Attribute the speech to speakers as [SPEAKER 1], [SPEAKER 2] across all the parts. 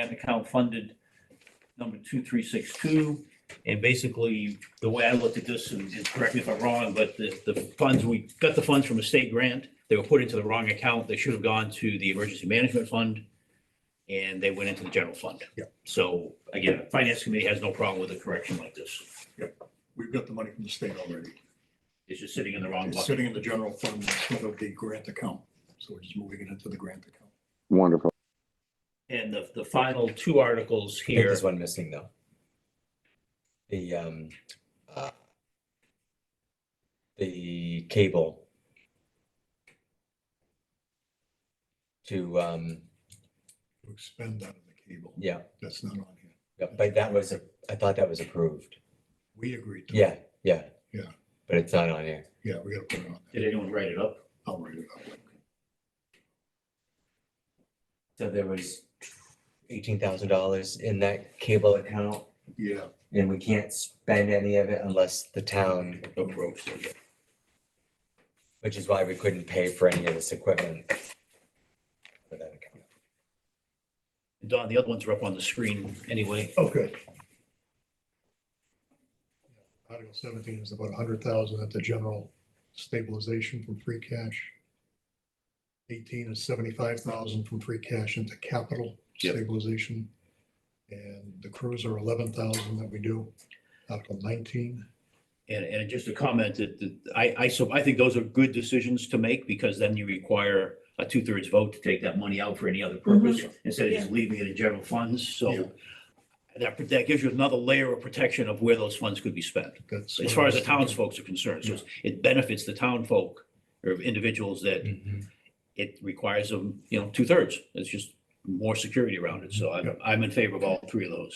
[SPEAKER 1] and account funded number two, three, six, two. And basically, the way I looked at this, and just correct me if I'm wrong, but the, the funds, we got the funds from a state grant. They were put into the wrong account. They should have gone to the emergency management fund. And they went into the general fund.
[SPEAKER 2] Yeah.
[SPEAKER 1] So again, finance committee has no problem with a correction like this.
[SPEAKER 2] We've got the money from the state already.
[SPEAKER 1] It's just sitting in the wrong
[SPEAKER 2] It's
[SPEAKER 1] bucket.
[SPEAKER 2] sitting in the general fund instead of the grant account. So we're just moving it into the grant account.
[SPEAKER 3] Wonderful.
[SPEAKER 1] And the, the final two articles
[SPEAKER 4] I think
[SPEAKER 1] here,
[SPEAKER 4] There's one missing though. The, um, uh, the cable. To, um,
[SPEAKER 2] We expend that on the cable.
[SPEAKER 4] yeah,
[SPEAKER 2] That's not on here.
[SPEAKER 4] yeah, but that was, a- I thought that was approved.
[SPEAKER 2] We agreed to. it.
[SPEAKER 4] Yeah, yeah.
[SPEAKER 2] Yeah.
[SPEAKER 4] But it's not on here.
[SPEAKER 2] Yeah, we gotta put it on. there.
[SPEAKER 1] did anyone write it up?
[SPEAKER 2] I'll write it up.
[SPEAKER 4] So there was eighteen thousand dollars in that cable account
[SPEAKER 2] Yeah,
[SPEAKER 4] and we can't spend any of it unless the town,
[SPEAKER 1] Approach.
[SPEAKER 4] which is why we couldn't pay for any of this equipment. For that account.
[SPEAKER 1] Don, the other ones are up on the screen anyway.
[SPEAKER 2] okay. Article seventeen is about a hundred thousand at the general stabilization from free cash. Eighteen is seventy-five thousand from free cash into capital
[SPEAKER 1] Yep.
[SPEAKER 2] stabilization. And the cruiser eleven thousand that we do, article nineteen.
[SPEAKER 1] And, and just a comment that, that I, I, so I think those are good decisions to make because then you require a two thirds vote to take that money out for any other purpose instead of just leaving it in general funds.
[SPEAKER 2] Yeah.
[SPEAKER 1] So that, that gives you another layer of protection of where those funds could be spent.
[SPEAKER 2] That's.
[SPEAKER 1] As far as the townsfolk are concerned, so it's- it benefits the townfolk or individuals that it requires them, you know, two thirds. It's just more security around it. So I'm, I'm in favor of all three of those.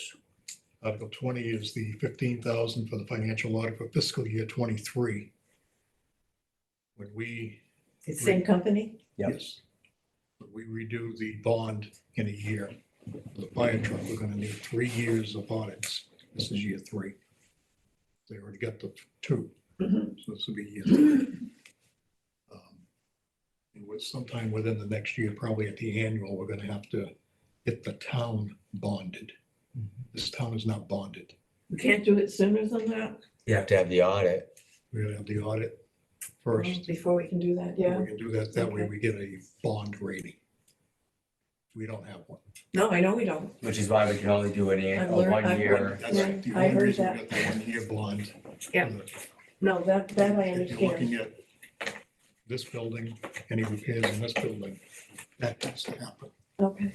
[SPEAKER 2] Article twenty is the fifteen thousand for the financial audit for fiscal year twenty-three. When we
[SPEAKER 5] It's same company?
[SPEAKER 4] Yep.
[SPEAKER 2] Yes. But we redo the bond in a year. For The fire truck, we're gonna need three years of audits. This is year three. They already got the two,
[SPEAKER 5] Mhm.
[SPEAKER 2] so this will be year three. Um, And with sometime within the next year, probably at the annual, we're gonna have to get the town bonded. This town is not bonded.
[SPEAKER 5] We can't do it sooner than that?
[SPEAKER 4] You have to have the audit.
[SPEAKER 2] We're gonna have the audit first.
[SPEAKER 5] Before we can do that,
[SPEAKER 2] and
[SPEAKER 5] yeah.
[SPEAKER 2] We can do that, that way
[SPEAKER 5] Okay.
[SPEAKER 2] we get a bond rating. We don't have one.
[SPEAKER 5] No, I know we don't.
[SPEAKER 4] Which is why we can only do an year,
[SPEAKER 5] I've
[SPEAKER 4] a
[SPEAKER 5] learned-
[SPEAKER 4] one
[SPEAKER 5] I've
[SPEAKER 4] year.
[SPEAKER 2] That's
[SPEAKER 5] Right,
[SPEAKER 2] the
[SPEAKER 5] I
[SPEAKER 2] only
[SPEAKER 5] heard
[SPEAKER 2] reason
[SPEAKER 5] that.
[SPEAKER 2] we got the one-year bond.
[SPEAKER 5] Yeah. No, that, that I
[SPEAKER 2] If you're
[SPEAKER 5] understand.
[SPEAKER 2] looking at this building, any repairs in this building, that has to happen.
[SPEAKER 5] Okay.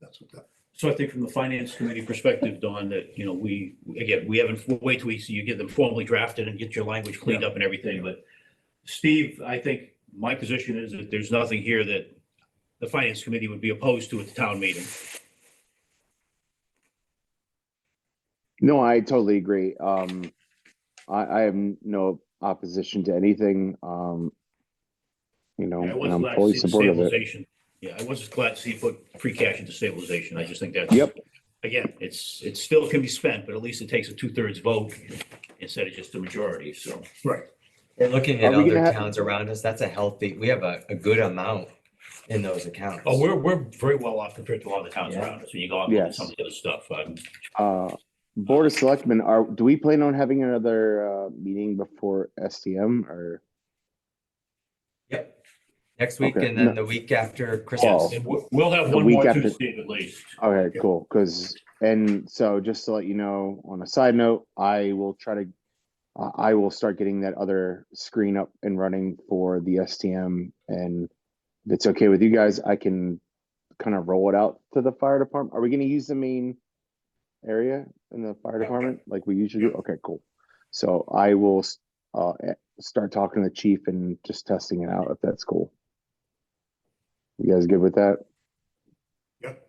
[SPEAKER 2] That's what that,
[SPEAKER 1] So I think from the finance committee perspective, Don, that, you know, we, again, we haven't, we'll wait till we see you get them formally drafted and get your language cleaned up and everything, but Steve, I think my position is that there's nothing here that the finance committee would be opposed to at the town meeting.
[SPEAKER 3] No, I totally agree. Um, I, I have no opposition to anything. Um, you know,
[SPEAKER 1] I
[SPEAKER 3] and
[SPEAKER 1] was
[SPEAKER 3] I'm
[SPEAKER 1] glad to
[SPEAKER 3] fully
[SPEAKER 1] see the
[SPEAKER 3] supportive of it.
[SPEAKER 1] stabilization. Yeah, I was glad to see you put free cash into stabilization. I just think that's.
[SPEAKER 3] Yep.
[SPEAKER 1] Again, it's, it still can be spent, but at least it takes a two thirds vote instead of just a majority, so.
[SPEAKER 4] And looking
[SPEAKER 3] Are
[SPEAKER 4] at
[SPEAKER 3] we
[SPEAKER 4] other
[SPEAKER 3] gonna have-
[SPEAKER 4] towns around us, that's a healthy, we have a, a good amount in those accounts.
[SPEAKER 1] Oh, we're, we're very well off compared to all the towns
[SPEAKER 4] Yeah.
[SPEAKER 1] around us. When you go out and look at
[SPEAKER 3] Yes.
[SPEAKER 1] some of the other stuff, um,
[SPEAKER 3] Uh, Board of Selectmen, are, do we plan on having another, uh, meeting before STM or?
[SPEAKER 4] Yep. Next week
[SPEAKER 3] Okay,
[SPEAKER 4] and
[SPEAKER 3] no.
[SPEAKER 4] then the week after
[SPEAKER 3] Oh.
[SPEAKER 4] Christmas.
[SPEAKER 1] And we'll, we'll have
[SPEAKER 3] The
[SPEAKER 1] one
[SPEAKER 3] week
[SPEAKER 1] more
[SPEAKER 3] after-
[SPEAKER 1] Tuesday at least.
[SPEAKER 3] Okay,
[SPEAKER 2] Yeah.
[SPEAKER 3] cool. Cause, and so just to let you know, on a side note, I will try to, uh, I, I will start getting that other screen up and running for the STM. And if it's okay with you guys, I can kind of roll it out to the fire department. Are we gonna use the main area in the fire department like we usually do? Okay, cool. So I will, s- uh, eh, start talking to the chief and just testing it out if that's cool. You guys good with that?
[SPEAKER 2] yep,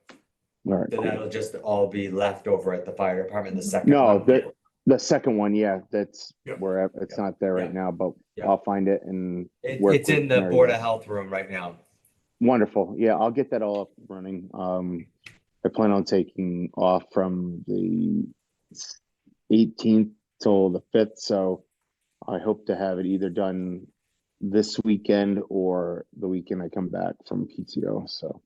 [SPEAKER 3] All right.
[SPEAKER 4] So
[SPEAKER 3] cool.
[SPEAKER 4] that'll just all be left over at the fire department, the second.
[SPEAKER 3] No,
[SPEAKER 4] one.
[SPEAKER 3] the, the second one, yeah, that's
[SPEAKER 2] Yep.
[SPEAKER 3] where, I- it's
[SPEAKER 4] Yep.
[SPEAKER 3] not there right
[SPEAKER 4] Yeah.
[SPEAKER 3] now, but
[SPEAKER 4] Yeah.
[SPEAKER 3] I'll find it and
[SPEAKER 4] It-
[SPEAKER 3] work
[SPEAKER 4] It's
[SPEAKER 3] with
[SPEAKER 4] in the
[SPEAKER 3] Mary
[SPEAKER 4] Board
[SPEAKER 3] Beth.
[SPEAKER 4] of Health room right now.
[SPEAKER 3] Wonderful, yeah, I'll get that all up and running. Um, I plan on taking off from the eighteenth till the fifth, so I hope to have it either done this weekend or the weekend I come back from PTO, so